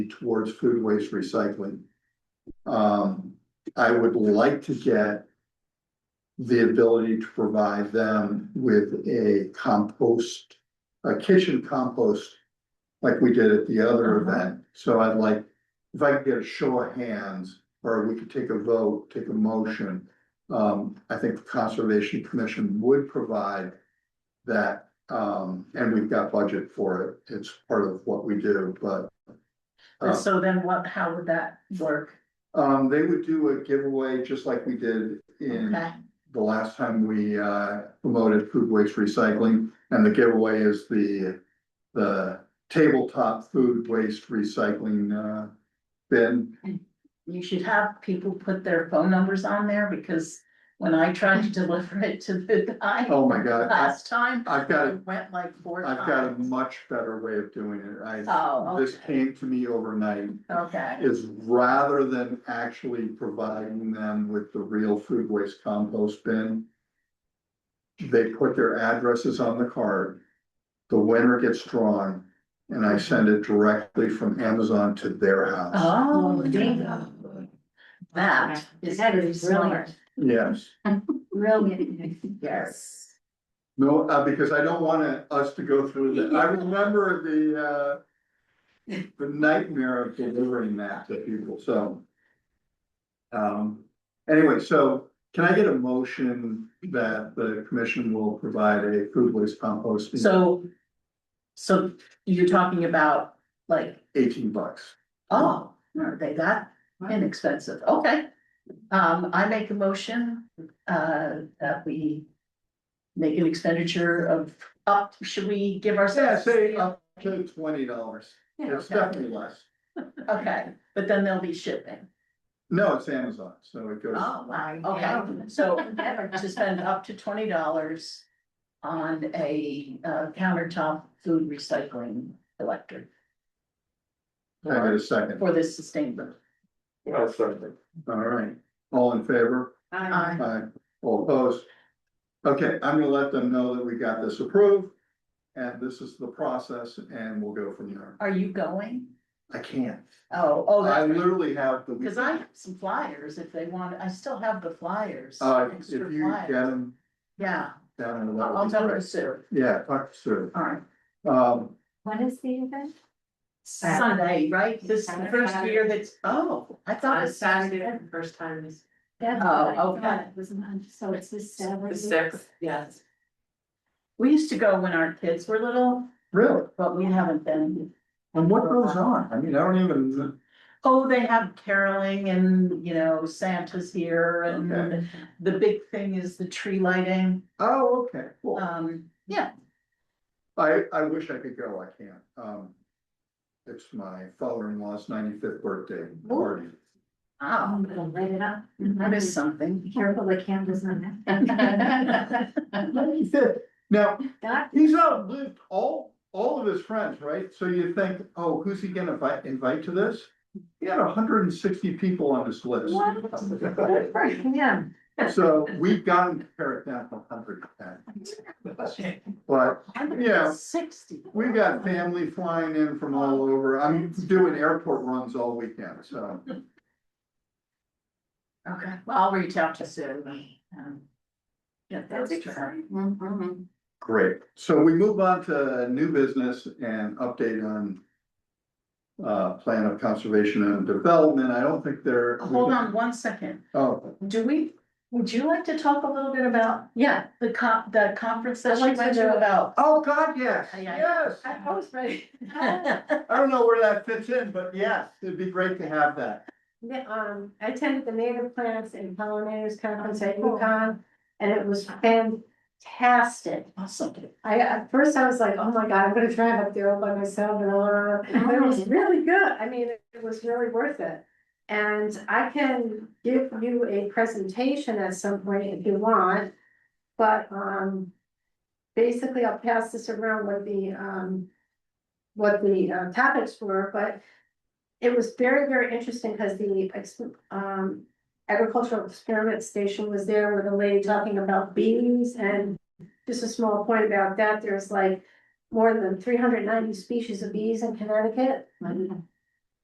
towards food waste recycling. Um, I would like to get the ability to provide them with a compost, a kitchen compost, like we did at the other Uh-huh. event. So I'd like, if I could get a show of hands, or we could take a vote, take a motion. Um, I think the Conservation Commission would provide that, um, and we've got budget for it. It's part of what we do, but Oh. And so then what, how would that work? um, they would do a giveaway just like we did in Okay. the last time we uh promoted food waste recycling. And the giveaway is the, the tabletop food waste recycling uh bin. You should have people put their phone numbers on there because when I tried to deliver it to the guy Oh my God, I- last time, I've got, it a- went like four I've got a times. much better way of doing it. I, Oh, this okay, came to me overnight. okay, Is rather than actually providing them with the real food waste compost bin. They put their addresses on the card. The winner gets drawn and I send it directly from Amazon to their house. oh, bingo. that is That is brilliant, brilliant. Yes, Brilliant. yes. no, uh, because I don't want to- us to go through that. I remember the uh. The nightmare of delivering that to people, so. Um, anyway, so can I get a motion that the commission will provide a food waste compost? So, so you're talking about like, Eighteen bucks. oh, are they that Inexpensive, okay. Um, I make a motion, uh, that we make an expenditure of, up, should we give Yeah, ourselves? Oh, say up to twenty dollars. It's okay. definitely less. Okay, but then they'll be shipping. No, it's Amazon, so it goes. Oh, wow, Yeah. okay, so to spend up to twenty dollars on a uh, countertop food recycling electric Can I get a second? for this sustainable. All right, all in favor? Um, Aye. Aye, all opposed. Okay, I'm gonna let them know that we got this approved. And this is the process and we'll go from there. Are you going? I can't. Oh, oh, I that's right. literally have the. Cause I have some flyers if they want, I still have the flyers. Uh, if extra you get flyers. them Yeah, down in the. I'll I'll tell her soon, Yeah, talk to Sue. alright. Um, When is the event? Sunday, right, this is the first Saturday. year that's, oh, I thought it's Saturday. the first time is Oh, okay. So it's this Saturday. the sixth, yes. We used to go when our kids were little, really, but we haven't been. and what goes on? I mean, I don't even, Oh, they have caroling and, you know, Santa's here and Okay. the big thing is the tree lighting, oh, okay, cool. um, yeah, I, I wish I could go, I can't, um. It's my father-in-law's ninety-fifth birthday party. wow, It'll light it up. that is something. Be Careful, the cam does not. Ninety-fifth, now, That, He's outlived all, all of his friends, right? So you think, oh, who's he gonna invite, invite to this? He had hundred and sixty people on his list. what? Good for him. So we've gotten to pare it down to hundred and ten. But Yeah. Sixty. we've got family flying in from all over. I'm doing airport runs all weekend, so. Okay, well, I'll reach out to Sue and, um. Get those That's to her. exciting. Mhm. Great. So we move on to new business and update on uh, plan of conservation and development. I don't think there. Hold on one second, Oh. do we, would you like to talk a little bit about, yeah, the con, the conference that she went to about? Oh, God, yes, Aye, aye. yes. I was ready. I don't know where that fits in, but yes, it'd be great to have that. Yeah, um, I attended the native plants and pollinators conference at Oh. UConn, and it was fantastic. Awesome. I, at first I was like, oh my god, I'm gonna drive up there all by myself and all, but it was really good, I mean, it was really worth it. And I can give you a presentation at some point if you want, but, um. Basically, I'll pass this around what the, um, what the uh, topics were, but. It was very, very interesting because the, ex- um, agricultural experiment station was there with a lady talking about bees and just a small point about that, there's like more than three hundred ninety species of bees in Connecticut. Mhm.